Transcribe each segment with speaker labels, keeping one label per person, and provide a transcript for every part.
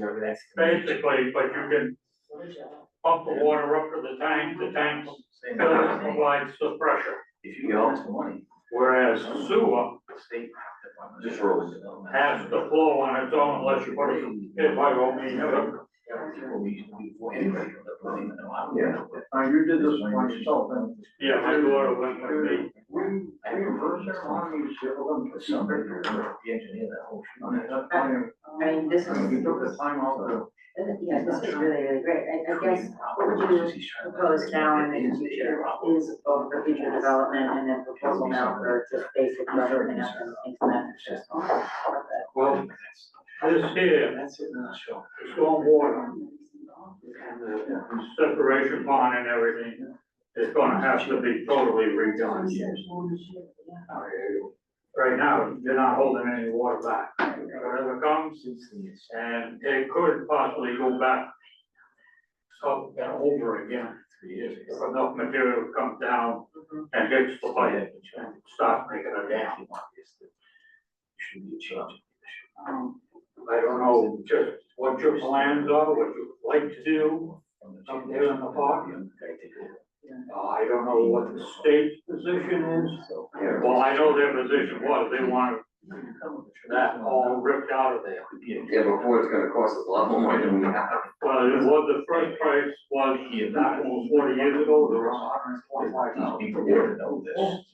Speaker 1: Remember that's.
Speaker 2: basically, but you can pump the water up to the tank, the tank provides the pressure.
Speaker 1: If you owe us the money,
Speaker 2: Whereas sewer
Speaker 1: the state. department-
Speaker 3: Just rolls.
Speaker 2: has to flow on its own unless you put it, if I go mean, uh,
Speaker 1: People we used to do before anybody got the money, no, I don't
Speaker 3: Yeah.
Speaker 1: know what-
Speaker 4: Now, you did this one yourself, and.
Speaker 2: yeah, my daughter went with me.
Speaker 4: We,
Speaker 1: I
Speaker 4: we
Speaker 1: remember
Speaker 4: reverse
Speaker 1: this
Speaker 4: our money, you them
Speaker 1: But
Speaker 4: for
Speaker 1: somebody,
Speaker 4: somebody.
Speaker 1: the engineer, that whole.
Speaker 4: I mean, that's why you-
Speaker 5: I mean, this is,
Speaker 4: You took the time off the.
Speaker 5: yeah, this is really, really great, I, I guess what would you propose now and in the future is both for future development and then proposal now for just basic level and implement it's just all of it.
Speaker 2: Well, this here,
Speaker 1: That's it, no, sure.
Speaker 2: the stormwater separation pond and everything, is gonna have to be totally redone. Right now, you're not holding any water back, whatever comes,
Speaker 1: Since the- it's-
Speaker 2: and it could possibly go back up and over again.
Speaker 1: three years
Speaker 2: if
Speaker 1: ago.
Speaker 2: enough material comes down and hits the pipe, and stop making a dam.
Speaker 1: Should be a change.
Speaker 5: Um,
Speaker 2: I don't know just what your plans are, what you'd like to do, Up there in the park? Uh, I don't know what the state's position is.
Speaker 3: Yeah.
Speaker 2: Well, I know their position was, they wanted that all ripped out of there.
Speaker 3: Yeah, before it's gonna cost us a lot more money than we have.
Speaker 2: Well, it was, the first price was, that was forty years ago, there was
Speaker 1: These
Speaker 2: hundred and twenty-five thousand.
Speaker 1: people want to know this.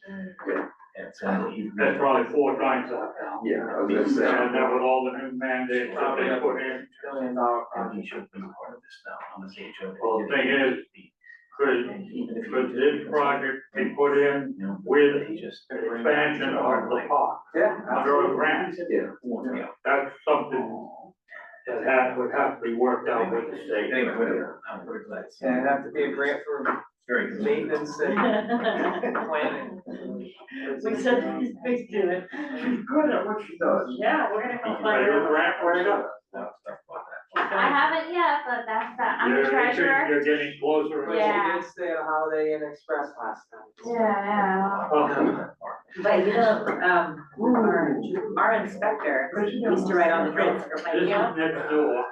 Speaker 3: Yeah.
Speaker 1: And so he-
Speaker 2: That's probably four times that now.
Speaker 3: Yeah, I was gonna say.
Speaker 2: And that was all the new mandates that they put in.
Speaker 1: Billion dollar project. He should be part of this now, I'm gonna say Joe.
Speaker 2: Well, the thing is, Could,
Speaker 1: Even if he
Speaker 2: could
Speaker 1: did-
Speaker 2: this project be put in
Speaker 1: You know,
Speaker 2: with
Speaker 1: He just.
Speaker 2: an expansion of the park
Speaker 4: Yeah.
Speaker 2: under a grant?
Speaker 1: Yeah.
Speaker 2: That's something that had, would have to be worked out with the state.
Speaker 1: Anyway, whatever, I'm very glad. it's-
Speaker 4: And it'd have to be a grant for
Speaker 1: Very good.
Speaker 4: maintenance and planning.
Speaker 5: We said these big do it.
Speaker 4: She's good at what she does.
Speaker 5: Yeah, we're gonna
Speaker 2: You
Speaker 5: go
Speaker 2: can
Speaker 5: find
Speaker 2: write a
Speaker 5: out.
Speaker 2: grant for it.
Speaker 1: No, it's not about that.
Speaker 6: I haven't yet, but that's that, I'm
Speaker 2: You're-
Speaker 6: the treasurer.
Speaker 2: You're getting closer.
Speaker 6: Yeah.
Speaker 4: stay at Holiday Inn Express last night.
Speaker 6: Yeah,
Speaker 5: But you know, um, our, our inspector used to write on the grids for my,
Speaker 2: This is next door.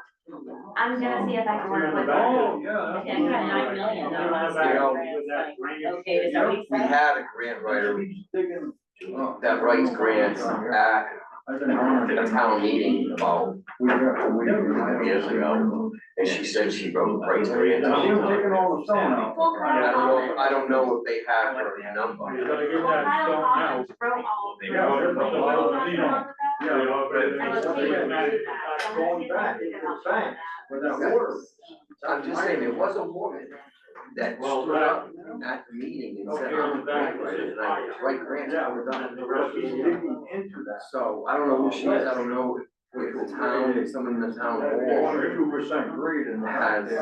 Speaker 6: I'm gonna see if I can work with
Speaker 2: Oh,
Speaker 6: her.
Speaker 4: yeah.
Speaker 6: I think I nine million,
Speaker 2: I'm gonna
Speaker 6: though.
Speaker 2: have to do that drainage.
Speaker 5: okay, is that what he
Speaker 3: We
Speaker 5: said?
Speaker 3: had a grant writer that writes grants at a town meeting about
Speaker 4: We got, we.
Speaker 3: five years ago. And she said she wrote, writes grants.
Speaker 4: She was
Speaker 3: I
Speaker 4: taking all the stone out.
Speaker 6: Well, Kyle
Speaker 3: don't know,
Speaker 6: Collins,
Speaker 3: I don't know if they have her number.
Speaker 2: You gotta get
Speaker 6: well,
Speaker 2: that
Speaker 6: Kyle
Speaker 2: stone out.
Speaker 6: Collins wrote all.
Speaker 1: They
Speaker 2: You
Speaker 1: got
Speaker 2: gotta
Speaker 1: it.
Speaker 2: put the lot of, you know,
Speaker 6: I
Speaker 2: Yeah, but
Speaker 6: I
Speaker 2: it's
Speaker 6: was
Speaker 2: something that
Speaker 6: thinking about
Speaker 2: is
Speaker 6: that.
Speaker 2: not going back.
Speaker 4: With that water.
Speaker 3: I'm just saying, there was a woman that
Speaker 2: Well,
Speaker 3: stood up at the meeting and said, I'm a grant writer and I write grants.
Speaker 2: Yeah, we're done. The rest
Speaker 4: She's
Speaker 2: is-
Speaker 4: digging into that.
Speaker 3: So I don't know who she is, I don't know if, if the town, if someone in the town
Speaker 4: One
Speaker 3: hall
Speaker 4: or two percent grade in that.
Speaker 3: has.
Speaker 4: You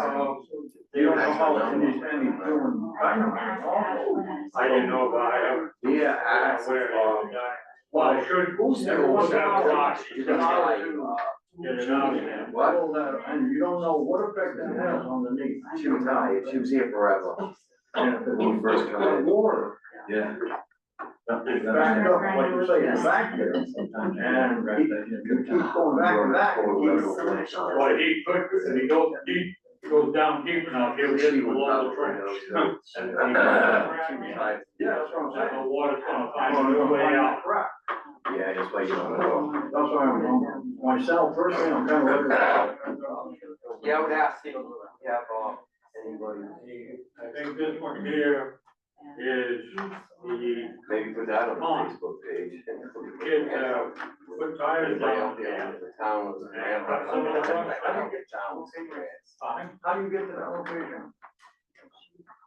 Speaker 4: don't know how much these any doing. I don't know.
Speaker 2: I didn't know about it. I haven't-
Speaker 3: Yeah,
Speaker 2: I
Speaker 3: asked,
Speaker 2: don't know where it
Speaker 3: um,
Speaker 2: is. Well, I should.
Speaker 3: Who's the
Speaker 2: Everyone's
Speaker 3: owner
Speaker 2: got
Speaker 3: of
Speaker 2: a rock.
Speaker 3: the-
Speaker 2: You gotta Get it out of there.
Speaker 3: What?
Speaker 4: All that, uh, and you don't know what effect that has on the knee.
Speaker 3: She was tired, she was here forever. When we first got in.
Speaker 4: Water,
Speaker 1: Yeah.
Speaker 4: it's backed up, like you say, it's back there. And you keep going back and back.
Speaker 2: Well, he could, if he goes deep, goes down deep enough, he'll get
Speaker 3: She
Speaker 2: the
Speaker 3: would
Speaker 2: wall
Speaker 3: probably
Speaker 2: of trench.
Speaker 3: know,
Speaker 2: And he-
Speaker 3: so.
Speaker 4: Yeah, that's what I'm
Speaker 2: That
Speaker 4: saying.
Speaker 2: the water's gonna find a Oh, way out.
Speaker 4: Crap.
Speaker 3: Yeah, that's why you don't know.
Speaker 4: That's why I'm, um, myself, personally, I'm kind of.
Speaker 3: Yeah, I would ask if you have, uh, anybody,
Speaker 2: I think this one here is the
Speaker 3: maybe put that on the Facebook page.
Speaker 2: kid, uh, put tires down there.
Speaker 3: The town was a grant. I don't get towns and grants.
Speaker 2: Fine.
Speaker 4: How do you get to that location?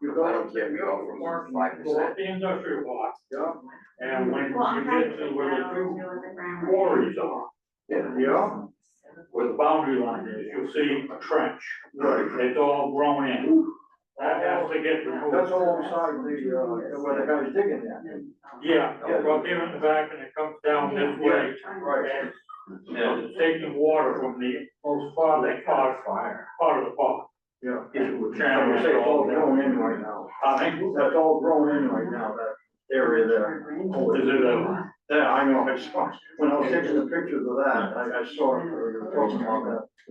Speaker 4: You
Speaker 3: I
Speaker 4: go,
Speaker 3: don't care, we offer more than five
Speaker 2: Go up
Speaker 3: percent.
Speaker 2: the industrial block,
Speaker 4: yeah,
Speaker 2: and when
Speaker 6: Well,
Speaker 2: you
Speaker 6: I'm trying to
Speaker 2: get
Speaker 6: figure
Speaker 2: to
Speaker 6: out
Speaker 2: where the
Speaker 6: what to do
Speaker 2: two
Speaker 6: with the grammar.
Speaker 2: quarries are,
Speaker 3: Yeah.
Speaker 4: yeah,
Speaker 2: where the boundary line is, you'll see a trench.
Speaker 4: right.
Speaker 2: It's all grown in. That has to get removed.
Speaker 4: That's all inside the, uh, where the guy's digging that.
Speaker 2: Yeah, well, here in the back and it comes down this way.
Speaker 4: Right.
Speaker 2: And it's taking water from the most farther part, part of the park.
Speaker 4: Yeah.
Speaker 2: It would
Speaker 4: Like
Speaker 2: channel
Speaker 4: I say,
Speaker 2: it
Speaker 4: it's all
Speaker 2: all down.
Speaker 4: grown in right now.
Speaker 2: I think,
Speaker 4: That's all grown in right now, that area there.
Speaker 2: is it uh,
Speaker 4: Oh,
Speaker 2: a,
Speaker 4: Yeah, I know, I saw, when I was taking the pictures of that, I, I saw it, you were talking about that.